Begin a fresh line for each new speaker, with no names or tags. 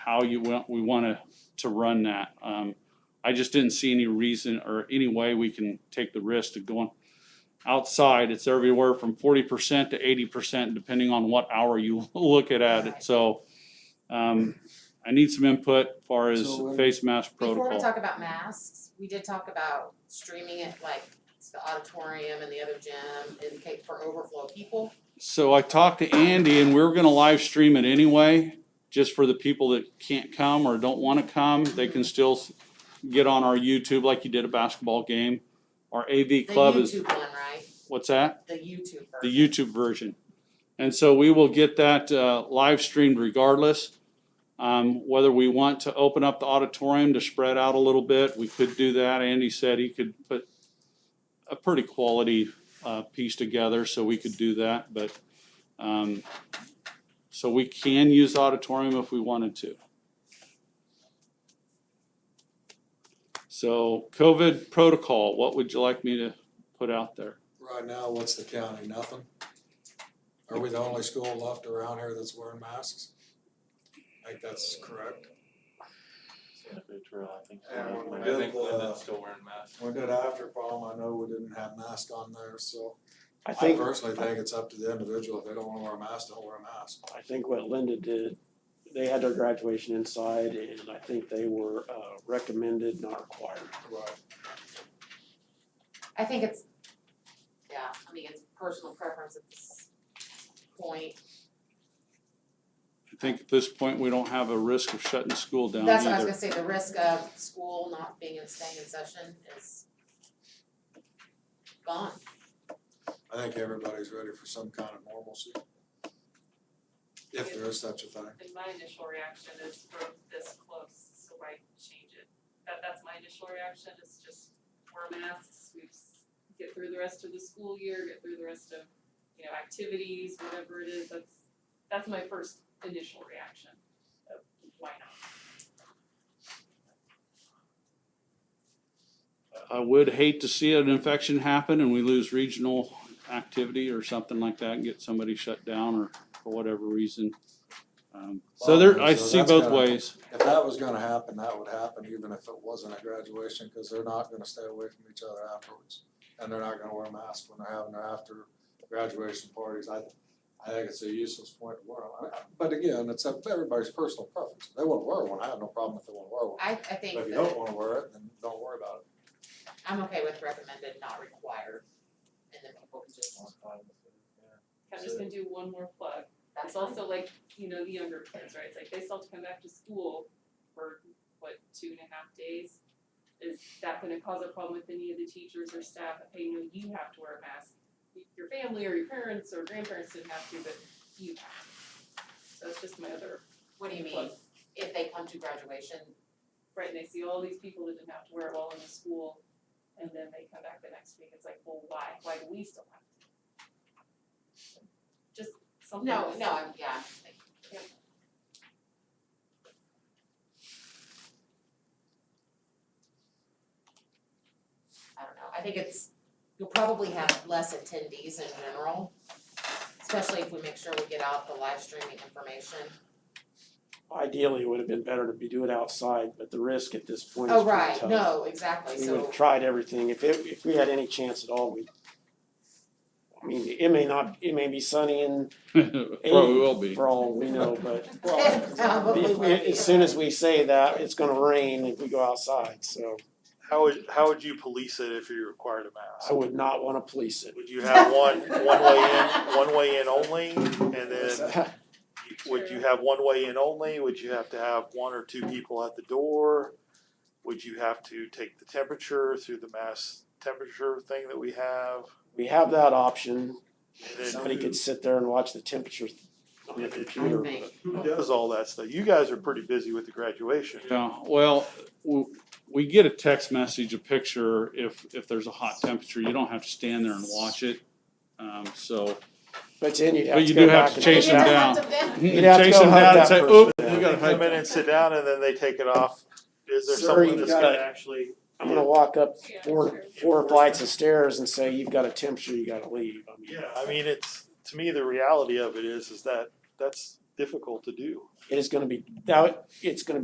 how you want, we want to, to run that. Um, I just didn't see any reason or any way we can take the risk of going outside. It's everywhere from forty percent to eighty percent, depending on what hour you look at it. So, um, I need some input as far as
So, um,
face mask
Before we
protocol.
talk about masks, we did talk about streaming it like it's the auditorium and the other gym in case for overflow people.
So I talked to Andy and we were gonna live stream it anyway, just for the people that can't come or don't wanna come. They can still s- get on our YouTube like you did a basketball game. Our AV
The
club is,
YouTube one, right?
what's that?
The YouTube version.
the YouTube version. And so we will get that uh, live streamed regardless. Um, Whether we want to open up the auditorium to spread out a little bit, we could do that. Andy said he could put a pretty quality uh, piece together, so we could do that, but, um, so we can use the auditorium if we wanted to. So COVID protocol, what would you like me to put out there?
Right now, what's the county, nothing? Are we the only school left around here that's wearing masks? I think that's correct.
Santa Fe Trail, I think.
Yeah, when we
I
did
think
the-
Lyndon's still wearing masks.
When did after prom, I know we didn't have masks on there, so
I
I
think,
personally think it's up to the individual, if they don't wanna wear a mask, don't wear a mask.
I think what Linda did, they had their graduation inside and I think they were uh recommended, not required.
Right.
I think it's, yeah, I mean, it's personal preference at this point.
I think at this point, we don't have a risk of shutting school down
That's what I was
either.
gonna say, the risk of school not being in, staying in session is gone.
I think everybody's ready for some kind of normalcy. If there is such a thing.
And my initial reaction is we're this close, so why change it? That, that's my initial reaction, is just wear masks, we s- get through the rest of the school year, get through the rest of, you know, activities, whatever it is, that's, that's my first initial reaction of why not?
I would hate to see an infection happen and we lose regional activity or something like that and get somebody shut down or for whatever reason. Um, So there, I
So
see
that's
both
gotta-
ways.
If that was gonna happen, that would happen even if it wasn't a graduation, cause they're not gonna stay away from each other afterwards. And they're not gonna wear masks when they're having their after graduation parties, I I think it's a useless point to wear 'em. I- But again, it's up to everybody's personal preference, If they wanna wear one, I have no problem if they wanna wear one.
I, I think
But if you
that-
don't wanna wear it, then don't worry about it.
I'm okay with recommended, not required, and then people can just,
I'm just gonna do one more plug.
that's
It's
also
also like, you know, the younger kids, right? It's like they still have to come back to school for what, two and a half days? Is that gonna cause a problem with any of the teachers or staff? Hey, no, you have to wear a mask. Your family or your parents or grandparents didn't have to, but you have. to. So it's just my other,
What do you mean,
What?
if they come to graduation,
right, and they see all these people that didn't have to wear it while in the school and then they come back the next week, it's like, well, why? Why do we still have to? Just something.
no,
that's-
no, I'm, yeah, I'm just thinking.
Yep.
I don't know, I think it's, you'll probably have less attendees in general, especially if we make sure we get out the live streaming information.
Ideally, it would have been better to be do it outside, but the risk at this point is
Oh,
pretty
right,
tough.
no, exactly,
We would
so,
have tried everything. If it, if we had any chance at all, we I mean, it may not, it may be sunny and
Probably will be.
for all we know, but
Probably
if we,
will be.
as soon as we say that, it's gonna rain if we go outside, so
How would, how would you police it if you required a
I
mask?
would not wanna police it.
Would you have one, one way in, one way in only, and then would you have one way in only, would you have to have one or two people at the door? Would you have to take the temperature through the mass temperature thing that we have?
We have that option.
And
Somebody
then
could sit there and watch the temperature on the computer.
I think.
who does all that stuff? You guys are pretty busy with the graduation.
Yeah, well, w- we get a text message, a picture, if, if there's a hot temperature, you don't have to stand there and watch it. Um, So
But then you'd have
But
to
you
go
do have
back
to
and.
chase
You
them
don't
down.
have to bend.
You'd have to
chase
go
them
hunt
down and
that
say,
person
"Oop,
down."
you
They
gotta hide."
come in and sit down and then they take it off. Is there
Sir,
someone
you
that's
gotta-
gonna actually?
I'm gonna walk up
Yeah,
four,
sure.
four flights of stairs and say, you've got a temperature, you gotta leave. I mean,
Yeah, I mean, it's, to me, the reality of it is, is that that's difficult to do.
It is gonna be, now, it's gonna be.